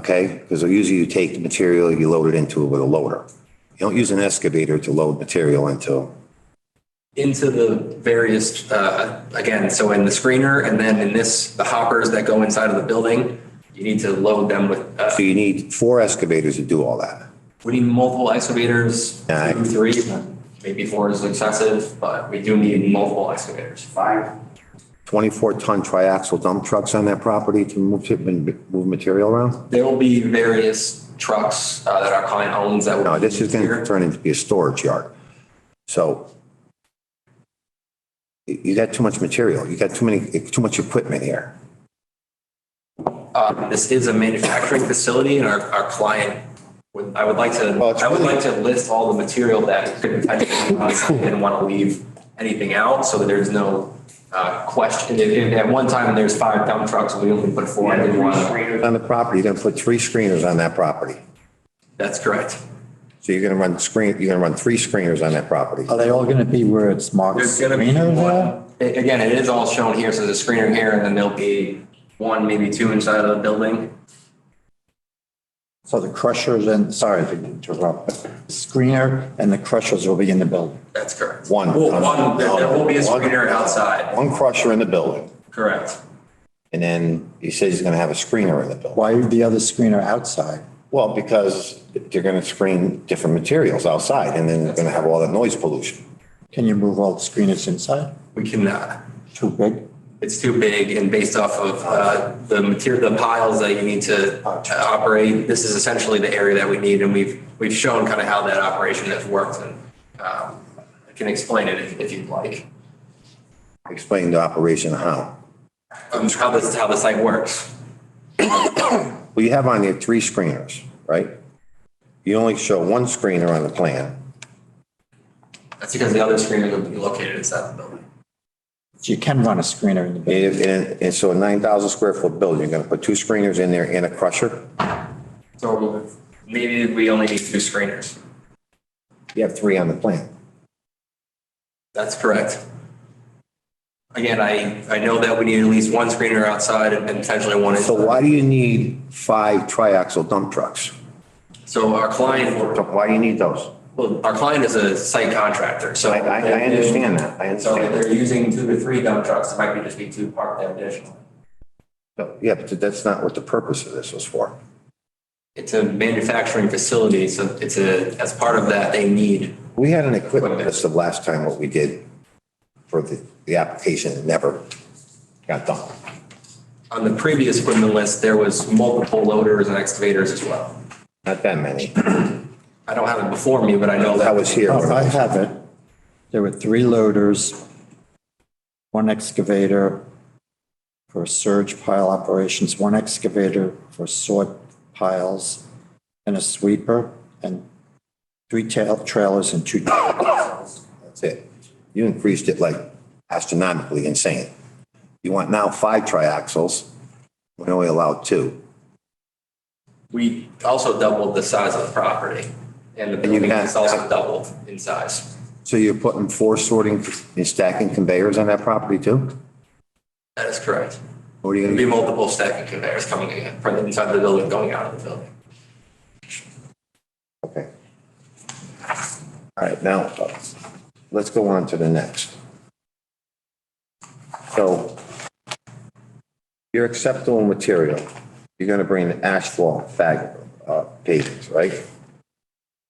Okay? Because usually you take the material, you load it into it with a loader. You don't use an excavator to load material into. into the various, uh, again, so in the screener and then in this, the hoppers that go inside of the building, you need to load them with, uh, So you need four excavators to do all that. we need multiple excavators, Yeah, I- two, three, maybe four is excessive, but we do need multiple excavators. Five. 24-ton triaxle dump trucks on that property to move, move material around? There will be various trucks uh, that our client owns that will. No, this is going here. to turn into be a storage yard. So you you got too much material. You got too many, too much equipment here. Uh, This is a manufacturing facility and our, our client would, I would like to, Well, it's I would really- like to list all the material that could potentially, be on site. I didn't want to leave anything out so that there's no uh, question. If- if At one time, there's five dump trucks, we only put four. I didn't want to- On the property, you're going to put three screeners on that property. That's correct. So you're going to run screen, you're going to run three screeners on that property. Are they all going to be where it's marked There's gonna be greener there? one, a- again, it is all shown here, so there's a screener here and then there'll be one, maybe two inside of the building. So the crushers and, sorry to interrupt, screener and the crushers will be in the building. That's correct. One. Well, one, there there will be a screener outside, One crusher in the building, correct. and then he says he's going to have a screener in the building. Why the other screener outside? Well, because they're going to screen different materials outside, and then they're going to have all that noise pollution. Can you move all the screeners inside? We uh, cannot. Too big? it's too big and based off of uh, the material, the piles that you need to to operate, this is essentially the area that we need and we've, we've shown kind of how that operation has worked and um, I can explain it if if you'd like, Explain the operation how. um, how this, how the site works. Well, you have on there three screeners, right? You only show one screener on the plan. That's because the other screeners would be located inside the building. So you can run a screener in the building. And, and, and so a 9,000 square foot building, you're going to put two screeners in there and a crusher? So maybe we only need two screeners. You have three on the plan. That's correct. Again, I, I know that we need at least one screener outside and potentially one So inside. why do you need five triaxle dump trucks? So our client So Why do you need those? Well, our client is a site contractor, so. I, I I understand that. I So if understand. they're using two to three dump trucks, it might be just be two parked there additionally. that. Yeah, but that's not what the purpose of this was for. It's a manufacturing facility, so it's a, as part of that, they need. We had an equipment list of last time what we did for the, the application that never got done. On the previous equipment list, there was multiple loaders and excavators as well. Not that many. I don't have it before me, but I know I that was here. Oh, I have it. There were three loaders, one excavator for surge pile operations, one excavator for sort piles, and a sweeper, and three tail trailers and two. That's it. You increased it like astronomically insane. You want now five triaxles. We only allowed two. we also doubled the size of the property. And the building can't- is also doubled in size. So you're putting four sorting and stacking conveyors on that property too? That is correct. What are you There'd be gonna, multiple stacking conveyors coming in, from inside the building, going out of the building. okay. All right, now, uh, let's go on to the next. So your acceptable material, you're gonna bring the asphalt fag, uh, pavings, right?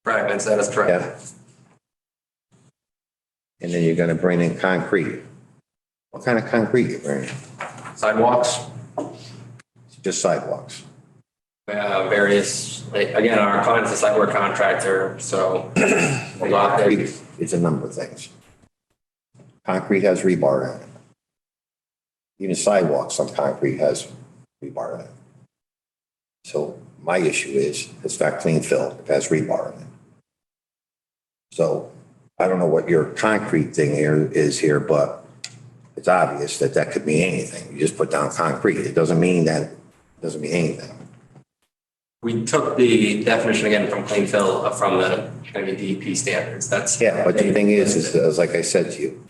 Fragments, that is correct. Yeah. And then you're gonna bring in concrete. What kind of concrete you bringing? sidewalks, Just sidewalks. uh, various, like, again, our client's a site work contractor, so a lot there. Concrete is a number of things. Concrete has rebar in it. Even sidewalks, some concrete has rebar in it. So my issue is, it's not clean fill, it has rebar in it. So I don't know what your concrete thing here is here, but it's obvious that that could mean anything. You just put down concrete. It doesn't mean that, doesn't mean anything. We took the definition again from clean fill uh, from the, kind of DEP E standards, that's. Yeah, but the thing is, is, is like I said to you,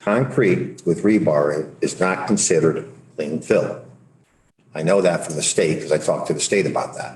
concrete with rebar in is not considered clean fill. I know that from the state because I talked to the state about that.